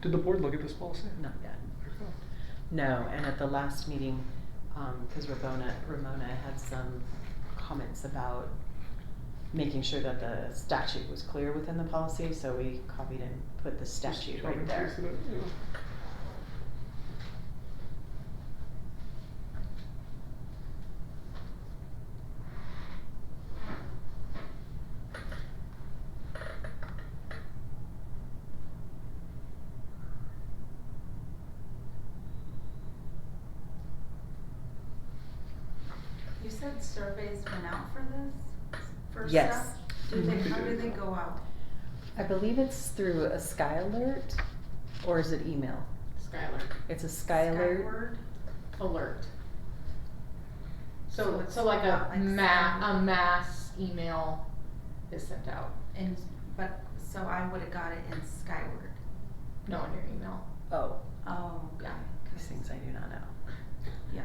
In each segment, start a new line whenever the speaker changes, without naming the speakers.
Did the board look at this policy?
Not yet.
Okay.
No, and at the last meeting, um, cause Ramona, Ramona had some comments about making sure that the statute was clear within the policy, so we copied and put the
Just
statute
copy
right
and
there. Mm-hmm.
pasted it, yeah.
You said surveys went out for this, for stuff?
Yes. Mm-hmm.
Do they,
Mhm.
how do they go out?
I believe it's through a Sky Alert, or is it email?
Skylar,
It's a
Skyward?
alert.
So
So,
it's
so like
not
a
like
ma-
some-
a mass email is sent out,
And, but, so I would've got it in Skyward.
no in your email.
Oh,
Oh, okay.
Yeah.
these things I do not know.
Yeah.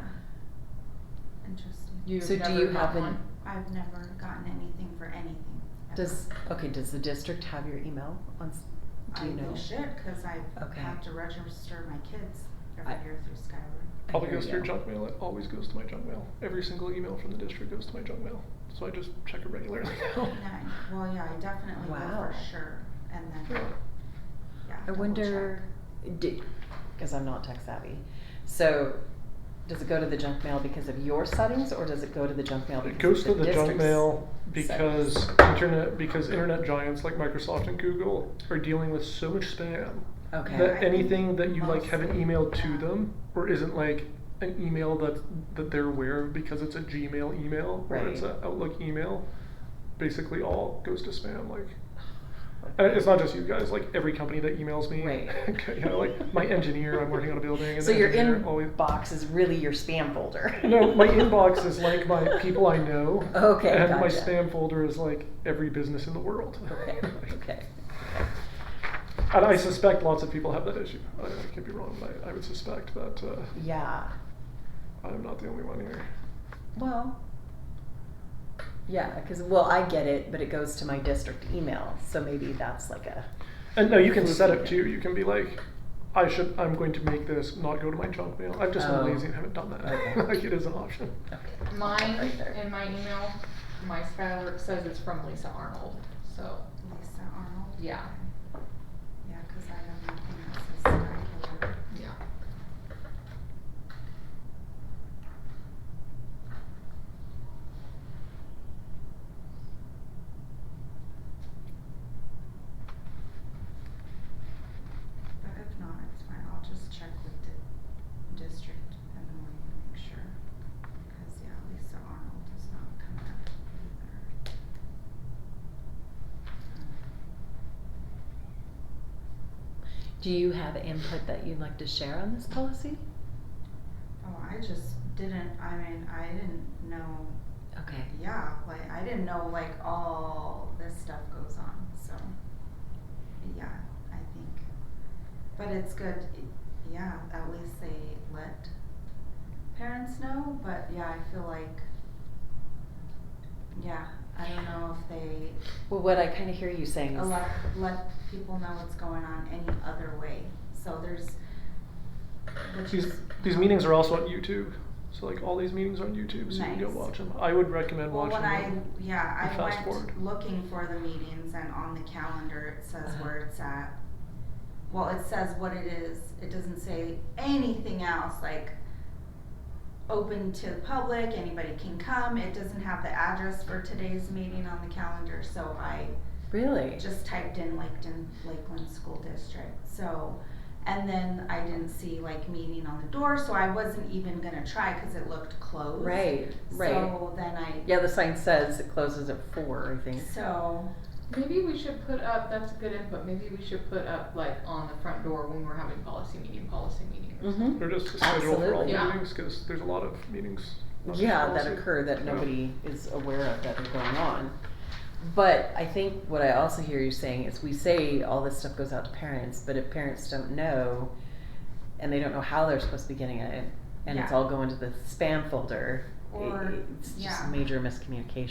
Interesting.
You've
So do
never
you have
gotten
an-
one?
I've never gotten anything for anything. ever.
Does, okay, does the district have your email on, s-
I,
do you know?
they should, cause I
Okay.
have to register my kids
I-
every year through Skyward.
I
Probably
hear
goes to your
you.
junk mail. It always goes to my junk mail. Every single email from the district goes to my junk mail. So I just check it regularly now.
Nine, well, yeah, I definitely will
Wow.
for sure, and then,
Yeah.
yeah,
I
double
wonder, because I'm not tech savvy, so does it go to the junk mail because of your settings, or does it go to the junk mail
It
because
goes
of
to
the
the
district's?
junk mail
settings?
because internet because internet giants like Microsoft and Google are dealing with so much spam
Okay.
that
I
anything
think
that you like haven't
mostly,
emailed to
yeah.
them or isn't like an email that that they're aware of because it's a Gmail email or it's
Right.
an Outlook email, basically all goes to spam. Like, and uh, it's not just you guys. Like every company that emails me,
Right.
you know, like my engineer, I'm working on a building. And
So
the
your
engineer always,
inbox is really your spam folder?
no, my inbox is like my people I know.
Okay,
And my
gotcha.
spam folder is like every business in the world.
Okay, okay.
And I suspect lots of people have that issue. I, I could be wrong, but I, I would suspect that uh,
Yeah,
I'm not the only one here.
well, yeah, because, well, I get it, but it goes to my district email, so maybe that's like a,
And no, you can set it too. You can be like, I should. I'm going to make this not go to my junk mail. I've just
Oh.
been lazy and haven't done that.
Okay.
like it is an option.
okay.
Mine,
Right there.
in my email, my Skylar says it's from Lisa Arnold, so,
Lisa Arnold?
Yeah.
Okay. Yeah, cause I have nothing that says Skyward.
yeah.
But if not, it's fine, I'll just check with the district in the morning to make sure. Cause yeah, Lisa Arnold does not come up either. Um,
Do you have input that you'd like to share on this policy?
Oh, I just didn't, I mean, I didn't know,
Okay.
yeah, like, I didn't know like all this stuff goes on, so. Yeah, I think, but it's good, i- yeah, at least they let parents know, but yeah, I feel like. Yeah, I don't know if they
Well, what I kind of hear you saying is.
let, let people know what's going on any other way, so there's. which
These
is-
these meetings are also on YouTube. So like all these meetings are on YouTube, so you can
Nice.
go watch them. I would recommend
Well,
watching
when I,
them.
yeah,
and
I
fast forward.
went looking for the meetings and on the calendar, it says
Uh-huh.
where it's at. Well, it says what it is, it doesn't say anything else, like, open to the public, anybody can come, it doesn't have the address for today's meeting on the calendar, so I
Really?
just typed in Lakeland, Lakeland School District, so. And then I didn't see like meeting on the door, so I wasn't even gonna try, cause it looked closed.
Right, right.
So then I
Yeah, the sign says it closes at four, I think.
So,
Maybe we should put up, that's good input, maybe we should put up like on the front door when we're having policy meeting, policy meeting or something.
Mm-hmm.
They're just a schedule for all
Absolutely.
the
Yeah.
meetings because there's a lot of meetings. not just
Yeah, that
policy.
occur that
Yeah.
nobody is aware of that are going on. But I think what I also hear you saying is we say all this stuff goes out to parents, but if parents don't know and they don't know how they're supposed to be getting it and it's
Yeah.
all going to the spam folder, i-
Or-
it's just
yeah.
major miscommunication.